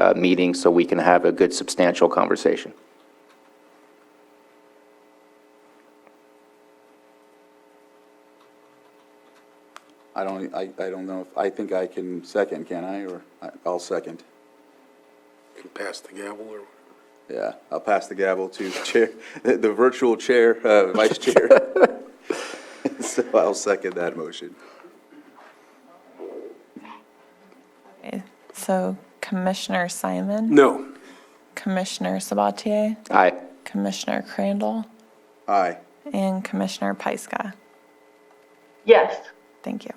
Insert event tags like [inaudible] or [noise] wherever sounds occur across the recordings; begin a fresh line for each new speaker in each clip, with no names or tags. uh, meeting so we can have a good substantial conversation.
I don't, I, I don't know, if I think I can second, can I, or, I- I'll second.
and pass the gavel or?
Yeah, I'll pass the gavel to [laughs] Chair, the the virtual Chair, uh, Vice Chair. [laughs] So I'll second that motion.
So Commissioner Simon,
No.
Commissioner Sabatier,
Aye.
Commissioner Crandall,
Aye.
and Commissioner Pyska.
Yes.
Thank you.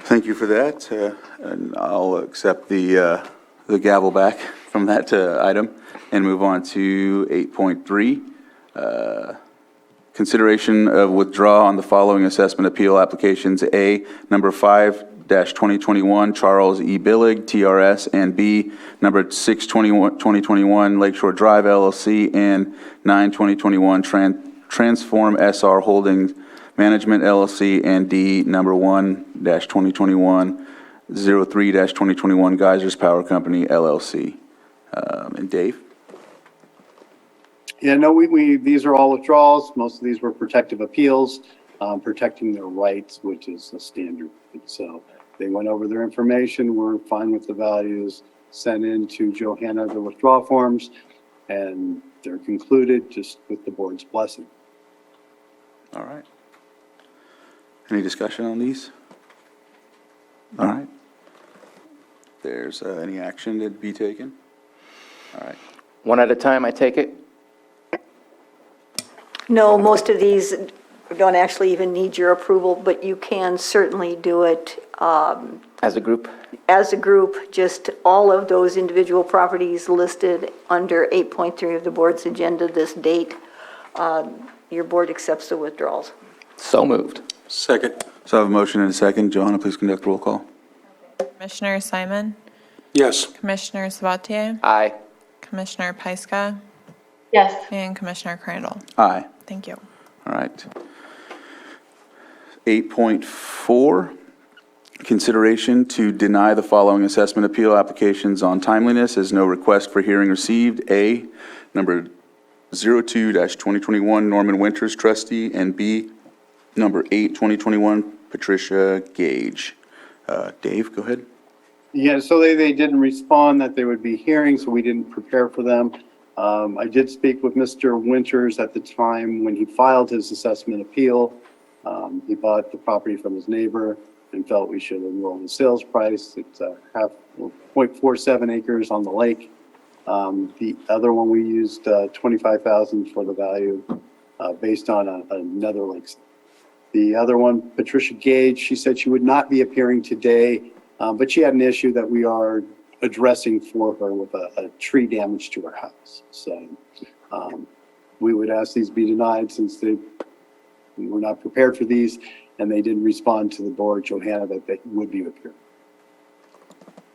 Thank you for that, uh, and I'll accept the, uh, the gavel back from that uh, item and move on to 8.3. uh, Consideration of withdraw on the following assessment appeal applications, A, number 5-2021 Charles E. Billig, TRS, and B, number 6-2021 Lakeshore Drive LLC, and 9-2021 Tran- Transform SR Holdings Management LLC, and D, number 1-2021 03-2021 Geysers Power Company LLC. Um, And Dave?
Yeah, no, we, we, these are all withdrawals. Most of these were protective appeals, um, protecting their rights, which is a standard. So they went over their information, were fine with the values, sent in to Johanna the withdrawal forms, and they're concluded just with the board's blessing.
All right. Any discussion on these? All right. There's uh, any action to be taken? All right,
One at a time, I take it?
No, most of these don't actually even need your approval, but you can certainly do it um,
As a group?
as a group, just all of those individual properties listed under 8.3 of the board's agenda this date. um, Your board accepts the withdrawals.
So moved.
Second.
so I have a motion and a second. Johanna, please conduct roll call.
Commissioner Simon,
Yes.
Commissioner Sabatier,
Aye.
Commissioner Pyska,
Yes.
and Commissioner Crandall.
Aye.
Thank you.
All right. 8.4, consideration to deny the following assessment appeal applications on timeliness as no request for hearing received. A, number 02-2021 Norman Winters trustee, and B, number 8, 2021 Patricia Gage. Uh, Dave, go ahead.
Yeah, so they, they didn't respond that they would be hearing, so we didn't prepare for them. Um, I did speak with Mr. Winters at the time when he filed his assessment appeal. Um, he bought the property from his neighbor and felt we should enroll the sales price. It's a half, point four seven acres on the lake. Um, the other one, we used, uh, twenty-five thousand for the value, uh, based on a- another lake's the other one, Patricia Gage, she said she would not be appearing today, uh, but she had an issue that we are addressing for her with a, a tree damage to her house. So um, we would ask these be denied since they, we were not prepared for these, and they didn't respond to the board, Johanna, that they would be appearing.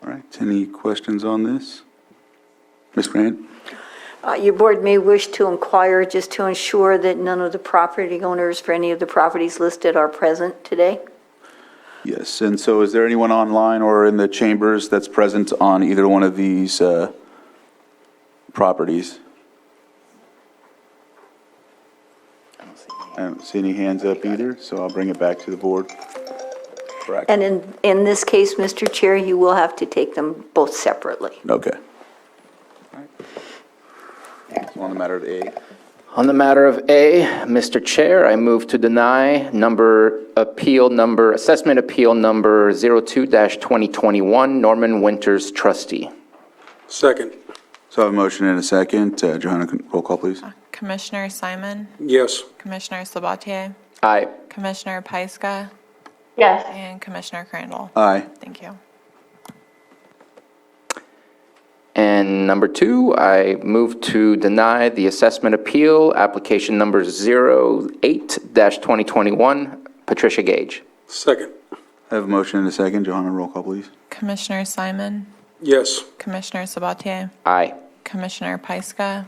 All right, any questions on this? Ms. Grant?
Uh, Your board may wish to inquire just to ensure that none of the property owners for any of the properties listed are present today.
Yes, and so is there anyone online or in the chambers that's present on either one of these uh, properties? I don't see any hands up either, so I'll bring it back to the board. Correct.
And in, in this case, Mr. Chair, you will have to take them both separately.
Okay. So On the matter of A,
On the matter of A, Mr. Chair, I move to deny number, appeal number, assessment appeal number 02-2021, Norman Winters trustee.
Second.
so I have a motion and a second. Uh, Johanna, can- roll call, please.
Commissioner Simon,
Yes.
Commissioner Sabatier,
Aye.
Commissioner Pyska,
Yes.
and Commissioner Crandall.
Aye.
Thank you.
And number two, I move to deny the assessment appeal, application number 08-2021, Patricia Gage.
Second.
I have a motion and a second. Johanna, roll call, please.
Commissioner Simon,
Yes.
Commissioner Sabatier,
Aye.
Commissioner Pyska,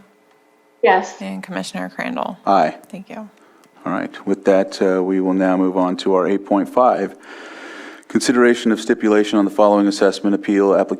Yes.
and Commissioner Crandall.
Aye.
Thank you.
All right, with that, uh, we will now move on to our 8.5, consideration of stipulation on the following assessment appeal application